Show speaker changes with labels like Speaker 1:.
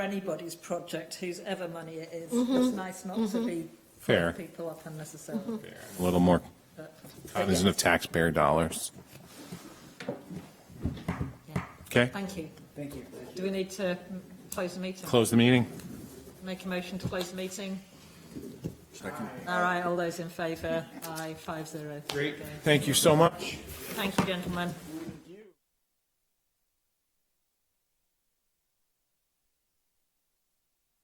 Speaker 1: anybody's project, whose ever money it is. It's nice not to be
Speaker 2: Fair.
Speaker 1: people up unnecessarily,
Speaker 2: A little more
Speaker 1: but,
Speaker 2: cognizant of taxpayer dollars.
Speaker 1: yeah.
Speaker 2: Okay,
Speaker 1: Thank you.
Speaker 3: Thank you.
Speaker 1: Do we need to mm, close the meeting?
Speaker 2: close the meeting.
Speaker 1: Make a motion to close the meeting? All right, all those in favour? Aye, five zero.
Speaker 2: Great. Thank you so much.
Speaker 1: Thank you, gentlemen.